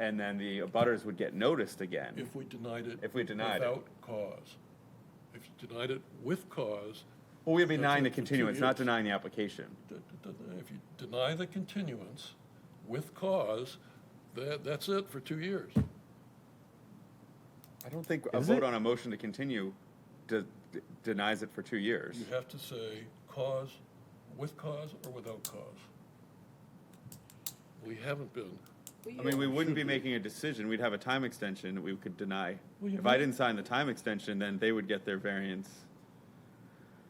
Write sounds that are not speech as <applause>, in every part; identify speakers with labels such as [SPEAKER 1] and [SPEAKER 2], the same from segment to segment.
[SPEAKER 1] and then the abutters would get noticed again.
[SPEAKER 2] If we denied it.
[SPEAKER 1] If we denied it.
[SPEAKER 2] Without cause. If you denied it with cause,
[SPEAKER 1] Well, we'd be
[SPEAKER 2] That's
[SPEAKER 1] denying the
[SPEAKER 2] it for two
[SPEAKER 1] continuance, not
[SPEAKER 2] years.
[SPEAKER 1] denying the application.
[SPEAKER 2] d- d- d- if you deny the continuance with cause, that, that's it for two years.
[SPEAKER 1] I don't think a
[SPEAKER 3] Is
[SPEAKER 1] vote
[SPEAKER 3] it?
[SPEAKER 1] on a motion to continue de- de- denies it for two years.
[SPEAKER 2] You have to say cause, with cause or without cause. We haven't been.
[SPEAKER 1] I mean, we wouldn't be making a decision, we'd have a time extension that we could deny.
[SPEAKER 2] Well, you
[SPEAKER 1] If I
[SPEAKER 2] have-
[SPEAKER 1] didn't sign the time extension, then they would get their variance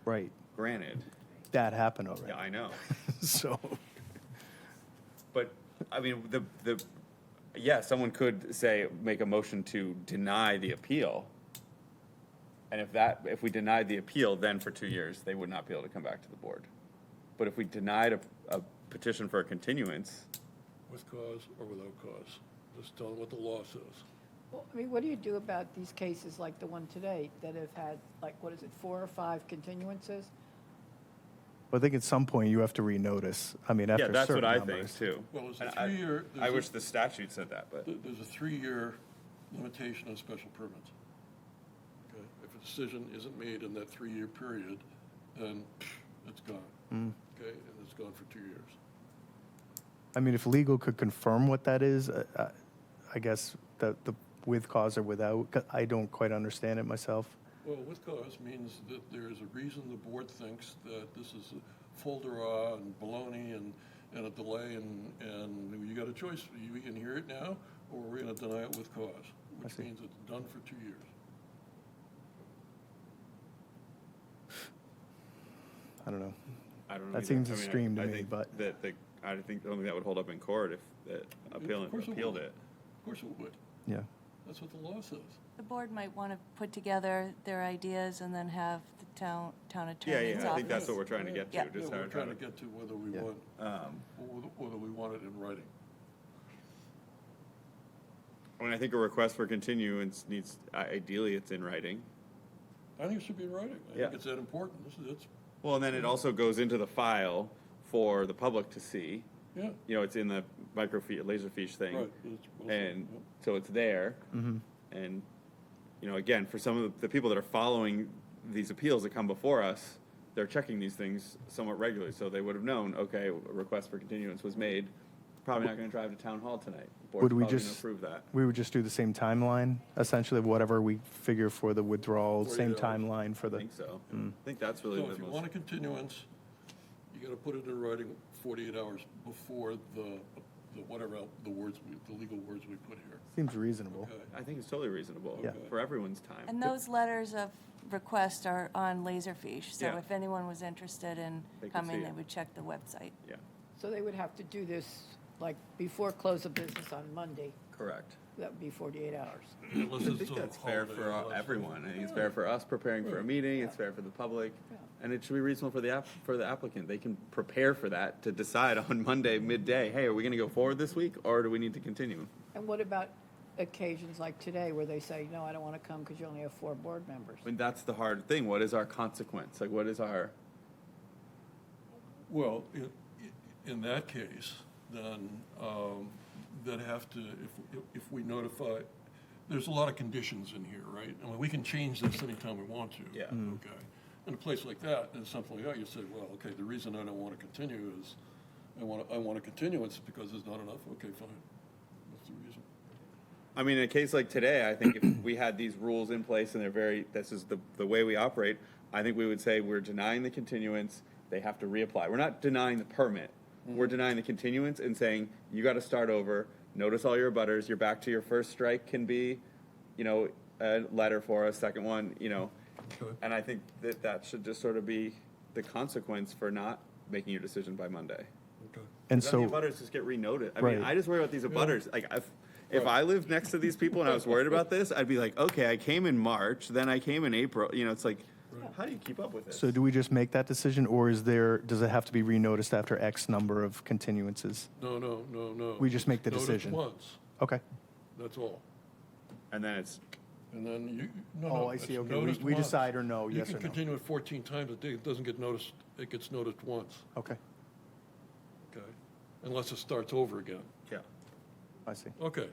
[SPEAKER 3] Right.
[SPEAKER 1] granted.
[SPEAKER 3] That happened <laughs>
[SPEAKER 1] Yeah,
[SPEAKER 3] already.
[SPEAKER 1] I know.
[SPEAKER 3] So,
[SPEAKER 1] But, I mean, the, the, yeah, someone could say, make a motion to deny the appeal. And if that, if we denied the appeal, then for two years, they would not be able to come back to the board. But if we denied a, a petition for a continuance,
[SPEAKER 2] with cause or without cause. Just tell them what the law says.
[SPEAKER 4] Well, I mean, what do you do about these cases like the one today that have had, like, what is it, four or five continuances?
[SPEAKER 3] I think at some point you have to renotice. I mean,
[SPEAKER 1] yeah,
[SPEAKER 3] after
[SPEAKER 1] that's what
[SPEAKER 3] certain
[SPEAKER 1] I
[SPEAKER 3] numbers.
[SPEAKER 1] think too.
[SPEAKER 2] Well, it's a
[SPEAKER 1] And I-
[SPEAKER 2] three-year-
[SPEAKER 1] I
[SPEAKER 2] there's a-
[SPEAKER 1] wish the statute said that, but.
[SPEAKER 2] There- There's a three-year limitation on special permits. Okay? If a decision isn't made in that three-year period, then psh, it's gone. Okay, and it's gone for two years.
[SPEAKER 3] I mean, if legal could confirm what that is, I- I I guess that the with cause or without, 'cause I don't quite understand it myself.
[SPEAKER 2] Well, with cause means that there is a reason the board thinks that this is a full derah and baloney and, and a delay and, and you got a choice. We can hear it now, or we're gonna deny it with cause, which
[SPEAKER 3] see.
[SPEAKER 2] means it's done for two years.
[SPEAKER 3] I don't know.
[SPEAKER 1] I don't know.
[SPEAKER 3] That
[SPEAKER 1] either.
[SPEAKER 3] seems
[SPEAKER 1] I mean, I-
[SPEAKER 3] extreme to
[SPEAKER 1] I
[SPEAKER 3] me,
[SPEAKER 1] think
[SPEAKER 3] but-
[SPEAKER 1] That, the- I think, I don't think that would hold up in court if the
[SPEAKER 2] Of
[SPEAKER 1] appellant
[SPEAKER 2] course
[SPEAKER 1] appealed
[SPEAKER 2] would.
[SPEAKER 1] it.
[SPEAKER 2] Of course it would.
[SPEAKER 3] Yeah.
[SPEAKER 2] That's what the law says.
[SPEAKER 5] The board might want to put together their ideas and then have the town, town
[SPEAKER 1] Yeah,
[SPEAKER 5] attorney's office.
[SPEAKER 1] yeah, I think that's what we're trying to get
[SPEAKER 5] Yeah.
[SPEAKER 1] to,
[SPEAKER 2] Yeah,
[SPEAKER 1] just
[SPEAKER 2] we're
[SPEAKER 1] how,
[SPEAKER 2] trying to get to whether we
[SPEAKER 3] Yeah.
[SPEAKER 2] want,
[SPEAKER 1] um,
[SPEAKER 2] whether whether we want it in writing.
[SPEAKER 1] I mean, I think a request for continuance needs, i- ideally, it's in writing.
[SPEAKER 2] I think it should be in writing. I
[SPEAKER 1] Yeah.
[SPEAKER 2] think it's that important. This is, it's,
[SPEAKER 1] Well, and then it also goes into the file for the public to see,
[SPEAKER 2] yeah,
[SPEAKER 1] you know, it's in the microfiche, laserfiche thing.
[SPEAKER 2] right. it's- we'll see.
[SPEAKER 1] And
[SPEAKER 2] Yep.
[SPEAKER 1] so it's there.
[SPEAKER 3] Mm-hmm.
[SPEAKER 1] And, you know, again, for some of the people that are following these appeals that come before us, they're checking these things somewhat regularly, so they would have known, okay, a request for continuance was made. Probably not gonna drive to town hall tonight. Board's
[SPEAKER 3] Would we
[SPEAKER 1] probably gonna
[SPEAKER 3] just-
[SPEAKER 1] Approve that.
[SPEAKER 3] We would just do the same timeline, essentially, whatever we figure for the withdrawal,
[SPEAKER 2] Forty
[SPEAKER 3] same
[SPEAKER 2] hours.
[SPEAKER 3] timeline for
[SPEAKER 1] I
[SPEAKER 3] the, Hmm.
[SPEAKER 1] think so. I think that's really
[SPEAKER 2] So
[SPEAKER 1] the
[SPEAKER 2] if you want
[SPEAKER 1] most,
[SPEAKER 2] a continuance, you gotta put it in writing forty-eight hours before the, the whatever, el- the words, we- the legal words we put here.
[SPEAKER 3] seems reasonable.
[SPEAKER 2] Okay.
[SPEAKER 1] I think it's totally reasonable
[SPEAKER 3] Yeah.
[SPEAKER 1] for everyone's time.
[SPEAKER 5] And those letters of request are on Laserfish, so
[SPEAKER 1] Yeah.
[SPEAKER 5] if anyone was interested in
[SPEAKER 1] They could see
[SPEAKER 5] coming, they
[SPEAKER 1] it.
[SPEAKER 5] would check the website.
[SPEAKER 1] Yeah,
[SPEAKER 4] So they would have to do this, like, before close of business on Monday.
[SPEAKER 1] correct.
[SPEAKER 4] That would be 48 hours.
[SPEAKER 2] Unless
[SPEAKER 1] <laughs> I
[SPEAKER 2] it's
[SPEAKER 1] think
[SPEAKER 2] a
[SPEAKER 1] that's fair
[SPEAKER 2] holiday,
[SPEAKER 1] for uh,
[SPEAKER 2] unless-
[SPEAKER 1] everyone. I think it's fair for us preparing for a meeting, it's fair for the public, and it should be reasonable for the app, for the applicant. They can prepare for that to decide on <laughs> Monday midday, hey, are we gonna go forward this week, or do we need to continue?
[SPEAKER 4] And what about occasions like today where they say, no, I don't want to come because you only have four board members?
[SPEAKER 1] I mean, that's the hard thing. What is our consequence? Like, what is our,
[SPEAKER 2] Well, i- i- in that case, then, um, that have to, if, if we notify, there's a lot of conditions in here, right? I mean, we can change this anytime we want to.
[SPEAKER 1] Yeah.
[SPEAKER 3] Mm-hmm.
[SPEAKER 1] Mm.
[SPEAKER 2] Okay. In a place like that, and something like that, you say, well, okay, the reason I don't want to continue is, I want, I want to continue, it's because there's not enough, okay, fine. That's the reason.
[SPEAKER 1] I mean, in a case like today, I think if we had these rules in place and they're very, this is the, the way we operate, I think we would say we're denying the continuance, they have to reapply. We're not denying the permit. We're denying the continuance and saying, you gotta start over, notice all your butters, you're back to your first strike can be, you know, a letter for us, second one, you know. And I think that that should just sort of be the consequence for not making your decision by Monday. Then
[SPEAKER 3] And
[SPEAKER 1] the
[SPEAKER 3] so.
[SPEAKER 1] abutters just get renoted. I
[SPEAKER 3] Right.
[SPEAKER 1] mean, I just worry about these abutters. Like, if, if I lived next to these people and I was worried about this, I'd be like, okay, I came in March, then I came in April. You know, it's like, how do you keep up with this?
[SPEAKER 3] So do we just make that decision, or is there, does it have to be renoticed after X number of continuances?
[SPEAKER 2] No, no, no, no.
[SPEAKER 3] We just make the
[SPEAKER 2] Notice
[SPEAKER 3] decision.
[SPEAKER 2] once,
[SPEAKER 3] Okay.
[SPEAKER 2] that's all.
[SPEAKER 1] and then it's,
[SPEAKER 2] And then you, no,
[SPEAKER 3] Oh,
[SPEAKER 2] no,
[SPEAKER 3] I see.
[SPEAKER 2] it's
[SPEAKER 3] Okay, we-
[SPEAKER 2] noticed
[SPEAKER 3] we
[SPEAKER 2] once.
[SPEAKER 3] decide or no, yes
[SPEAKER 2] You
[SPEAKER 3] or
[SPEAKER 2] can
[SPEAKER 3] no.
[SPEAKER 2] continue it 14 times a day, it doesn't get noticed, it gets noticed once,
[SPEAKER 3] Okay.
[SPEAKER 2] okay? Unless it starts over again.
[SPEAKER 1] yeah.
[SPEAKER 3] I see.
[SPEAKER 2] Okay,